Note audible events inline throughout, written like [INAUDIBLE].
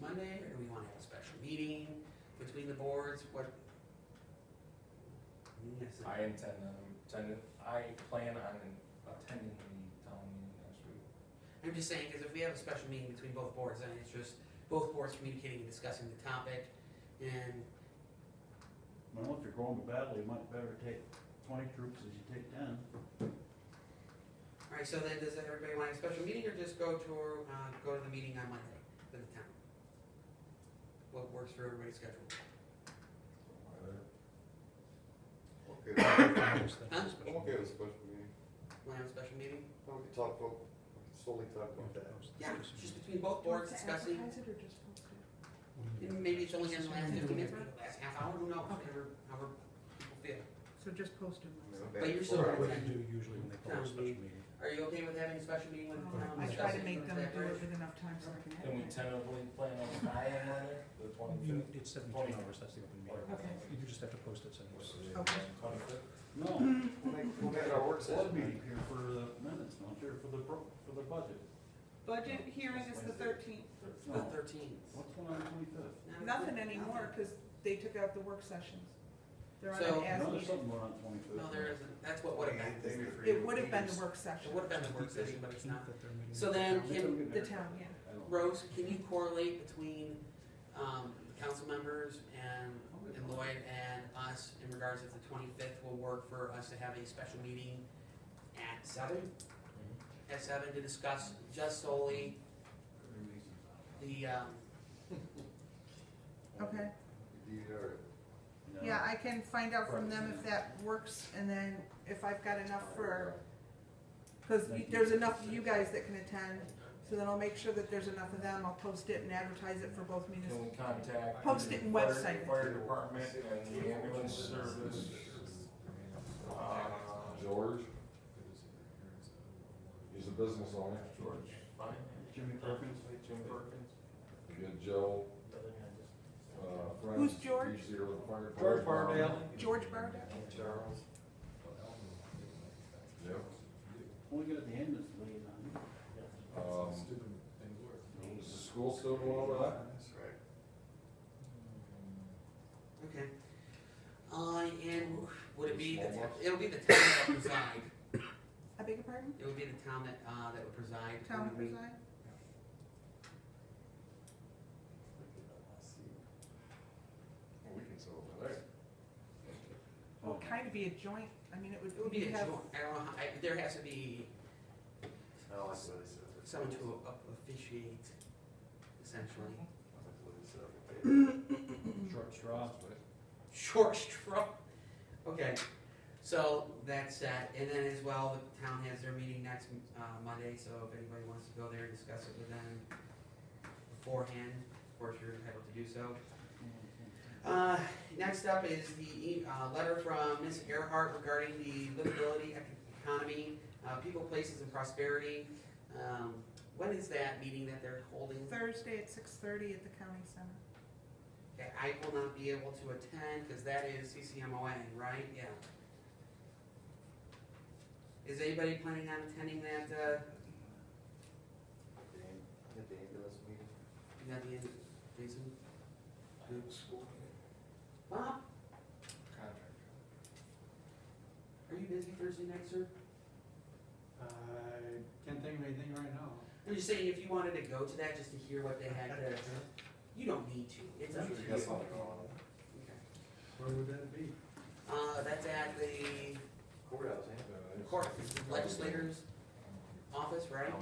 Monday, or do we wanna have a special meeting between the boards, what? Yes, I intend, um, intend, I plan on attending the town meeting next week. I'm just saying, cause if we have a special meeting between both boards, then it's just both boards communicating and discussing the topic, and Well, if you're going to battle, you might better take twenty troops as you take ten. All right, so then does everybody want a special meeting or just go to, uh, go to the meeting on Monday for the town? What works for everybody's schedule? Okay, I'm Huh? okay with special meeting. Want to have a special meeting? We can talk about, we can solely talk about that. Yeah, just between both boards discussing, and maybe it's only in the last fifteen minutes, maybe the last half hour, who knows, however, however people feel. So just post them. I mean, I'm But you're back still for it. right. What do you do usually when they call a Sounds special neat. meeting? Are you okay with having a special meeting with the town? I try to discussing make things them that do it bridge? with enough time so I can Can we edit it. tentatively plan on Friday, Monday, the You- twenty-fifth? It's seventy-two hours, that's the open meeting. You just have to post it somewhere. Okay. Twenty-fifth? No, Hmm. We'll make- We'll make it our work board session. meeting here for the minutes, not here for the, pro- for the budget. Budget hearing is the thirteenth. The No. thirteenth. What's going on twenty-fifth? Nothing anymore, cause they took out the work sessions. They're So- No, on an as there's needed. something going on twenty-fifth. No, there isn't, that's what would have Twenty-eighth, been, they were- It would have been the work it session, would have been the work session, but it's not. So then, can, the town, yeah. Rose, can you correlate between, um, the council members and, and Lloyd and us in regards if the twenty-fifth will work for us to have a special meeting at seven? At seven to discuss just solely the, um, Okay, Indeed, all right. yeah, I can find out from them if that works and then if I've got enough for, cause you- there's enough of you guys that can attend. So then I'll make sure that there's enough of them. I'll post it and advertise it for both Can municipal. we contact? Post it the and fire- website. Fire department and the ambulance service. Uh, George He's a business owner. George, fine. Jimmy Perkins, Jim Perkins. You got Joe, uh, Franz. Who's George? He's here with the fire George department. Bardale, George Barda? Charles. Yep. only got the ambulance late on. Um, Is the school still going over that? That's right. okay. Uh, and would it be, the Small ones. it'll be the town that preside, I beg your pardon? it would be the town that, uh, that would preside. Town of Versailles? Well, We can solve it, all right. It Oh. would Oh, kind of be a joint, I mean, it would. It would be a you'd joint, have- I don't know, how- I, there has to be No, that's what Oh, I said. someone to o- officiate, essentially. That's what I said. Short straw. Short straw. Okay, so that's that, and then as well, the town has their meeting next, uh, Monday, so if anybody wants to go there and discuss it with them beforehand, of course, you're entitled to do so. Uh, next up is the, e- uh, letter from Ms. Earhart regarding the livability ec- economy, uh, people, places, and prosperity. Um, when is that meeting that they're holding? Thursday at six thirty at the county center. Okay, I will not be able to attend, cause that is CCMOA, right? Yeah. Is anybody planning on attending that, uh, The am- At the ambulance meeting. you got the end, Jason? Bob, Contract. are you busy Thursday night, sir? I Uh, can't think of anything right now. I'm just saying, if you wanted to go to that, just to hear what they had [LAUGHS] to, you don't need to, it's up to you. Sure, you got something going on. Okay. Where would that be? Uh, that's at the Courthouse, ain't it? court, legislators' office, right?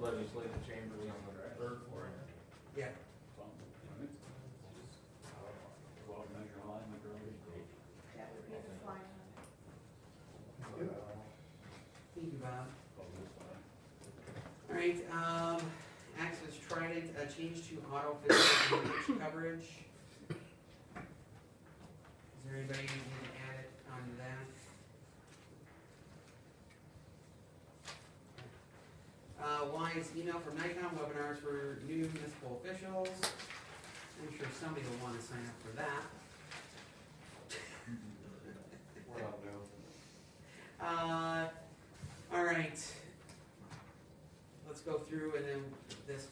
Legislative chamber on the third floor. Yeah, Well, measure line, measure line. That would be the flyer. Yeah. thank you, Bob. All right, um, Access Trident, a change to auto physical damage coverage. Is there anybody who can add it on that? Uh, Wise email from Nikon, webinars for new municipal officials. I'm sure somebody will wanna sign up for that. We're not new. Uh, all right. Let's go through and then this